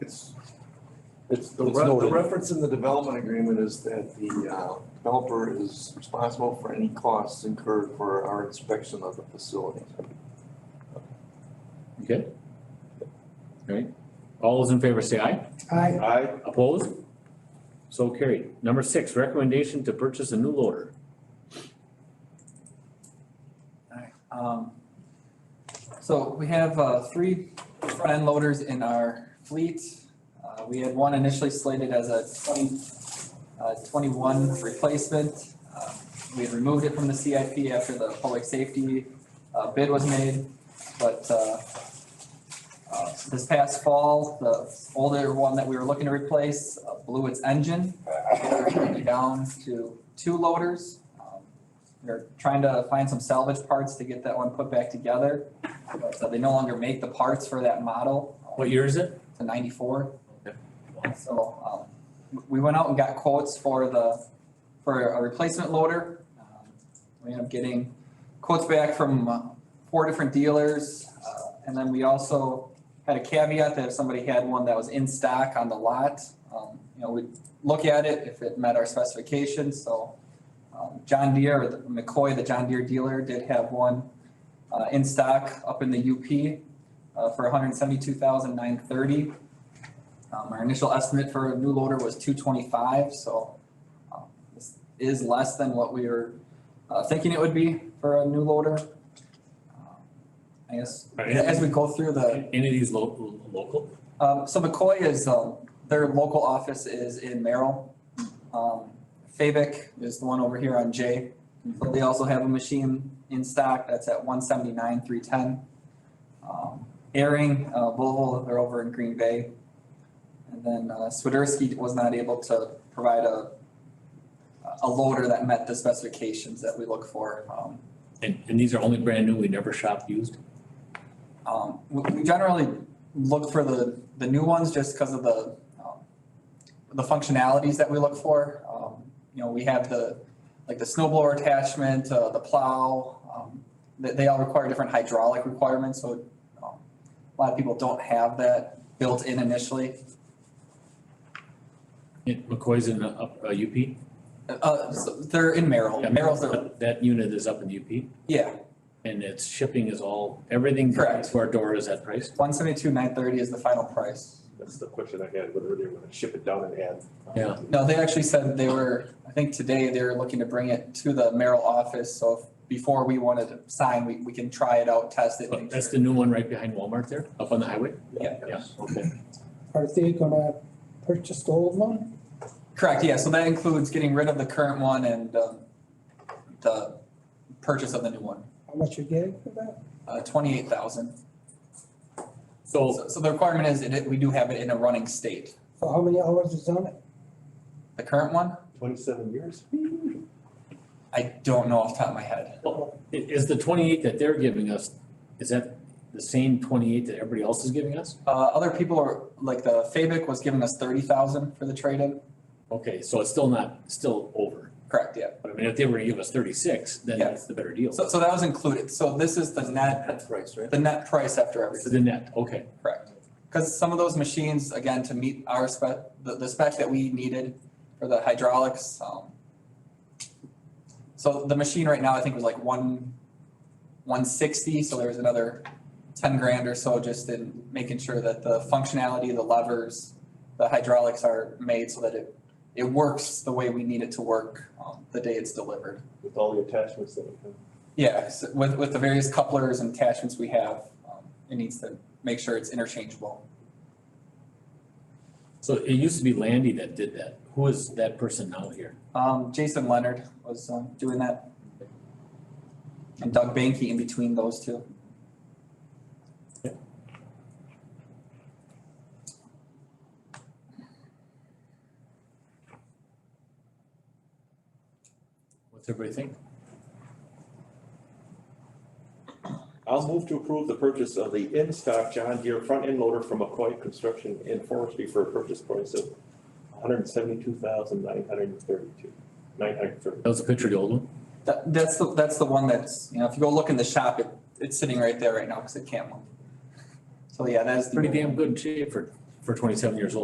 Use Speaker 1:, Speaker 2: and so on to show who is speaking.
Speaker 1: It's, it's the
Speaker 2: It's
Speaker 1: re- the
Speaker 2: noted.
Speaker 1: reference in the development agreement is that the uh, developer is responsible for any costs incurred for our inspection of the facility.
Speaker 2: Okay? Alright, all those in favor say aye.
Speaker 3: Aye.
Speaker 1: I,
Speaker 2: Opposed? So carried. Number six, recommendation to purchase a new loader.
Speaker 4: Um, So we have uh, three front-end loaders in our fleet. Uh, We had one initially slated as a 20, uh, 21 replacement. Uh, We had removed it from the CIP after the public safety uh, bid was made. But uh, uh, this past fall, the older one that we were looking to replace uh, blew its engine. We're turned it down to two loaders. Um, they're trying to find some salvage parts to get that one put back together. So they no longer make the parts for that model.
Speaker 2: What year is it?
Speaker 4: It's a ninety-four. So, um, we went out and got quotes for the, for a replacement loader. Um, We ended up getting quotes back from uh, four different dealers. Uh, And then we also had a caveat that if somebody had one that was in stock on the lot, um, you know, we'd look at it if it met our specifications, so um, John Deere, or the- McCoy, the John Deere dealer, did have one uh, in stock up in the UP uh, for 172,930. hundred and seventy-two thousand nine thirty. Um, Our initial estimate for a new loader was two twenty-five, so um, this is less than what we were uh, thinking it would be for a new loader. Um, I guess,
Speaker 2: Are any-
Speaker 4: as we go through the.
Speaker 2: Any of these lo- local?
Speaker 4: Um, so McCoy is, um, their local office is in Merrill. Um, Fabic is the one over here on J. So they also have a machine in stock that's at one seventy-nine, three ten. Um, Airing, uh, Volvo, they're over in Green Bay. And then, uh, Swiderski was not able to provide a, a loader that met the specifications that we look for. Um,
Speaker 2: And, and these are only brand new, we never shop used?
Speaker 4: Um, we, we generally look for the, the new ones just because of the, um, the functionalities that we look for. Um, you know, we have the, like the snow blower attachment, uh, the plow, um, they, they all require different hydraulic requirements, so, um, a lot of people don't have that built in initially.
Speaker 2: Yeah, McCoy's in, the up, uh, UP?
Speaker 4: Uh, so they're in Merrill,
Speaker 2: Yeah,
Speaker 4: Merrill's their,
Speaker 2: That that unit is up in UP
Speaker 4: yeah,
Speaker 2: and its shipping is all, everything
Speaker 4: Correct.
Speaker 2: to our door is that price?
Speaker 4: one seventy-two, nine thirty is the final price.
Speaker 5: That's the question I had, whether they were gonna ship it down and uh, add.
Speaker 2: Yeah.
Speaker 4: No, they actually said they were, I think today they were looking to bring it to the Merrill office, so if- before we wanted to sign, we, we can try it out, test it.
Speaker 2: But
Speaker 4: make
Speaker 2: That's
Speaker 4: sure.
Speaker 2: the new one right behind Walmart there, up on the highway?
Speaker 4: Yeah.
Speaker 2: Yeah, okay.
Speaker 3: Are they gonna purchase the old one?
Speaker 4: Correct, yeah, so that includes getting rid of the current one and, um, the purchase of the new one,
Speaker 3: How much you getting for that?
Speaker 4: uh, twenty-eight thousand.
Speaker 2: So
Speaker 4: So, so the requirement is that it- we do have it in a running state.
Speaker 3: So how many hours is on it?
Speaker 4: The current one,
Speaker 5: Twenty-seven years?
Speaker 4: I don't know off the top of my head.
Speaker 2: i- is the twenty-eight that they're giving us, is that the same twenty-eight that everybody else is giving us?
Speaker 4: Uh, other people are, like the Fabic was giving us thirty thousand for the trade-in,
Speaker 2: Okay, so it's still not, still over.
Speaker 4: correct, yeah.
Speaker 2: But I mean, if they were to give us thirty-six, then
Speaker 4: Yeah.
Speaker 2: that's the better deal.
Speaker 4: So, so that was included, so this is the net,
Speaker 1: that's right, right?
Speaker 4: the net price after everything.
Speaker 2: So the net, okay.
Speaker 4: Correct. Because some of those machines, again, to meet our spec, the, the spec that we needed for the hydraulics, um. So the machine right now, I think was like one, one sixty, so there was another ten grand or so just in making sure that the functionality, the levers, the hydraulics are made so that it, it works the way we need it to work, um, the day it's delivered.
Speaker 5: With all the attachments that we have.
Speaker 4: Yeah, so with, with the various couplers and attachments we have, um, it needs to make sure it's interchangeable.
Speaker 2: So it used to be Landy that did that. Who is that person now here?
Speaker 4: Um, Jason Leonard was um, doing that. And Doug Banky in between those two.
Speaker 2: What's everybody think?
Speaker 5: I'll move to approve the purchase of the in-stock John Deere front-end loader from McCoy Construction and Forestry for a purchase price of hundred and seventy-two thousand nine hundred and thirty-two, nine hundred and thirty.
Speaker 2: That was a picture of the old one?
Speaker 4: That, that's the, that's the one that's, you know, if you go look in the shop, it, it's sitting right there right now because it can't move. So yeah, that is the.
Speaker 2: Pretty damn good shape for for twenty-seven years old.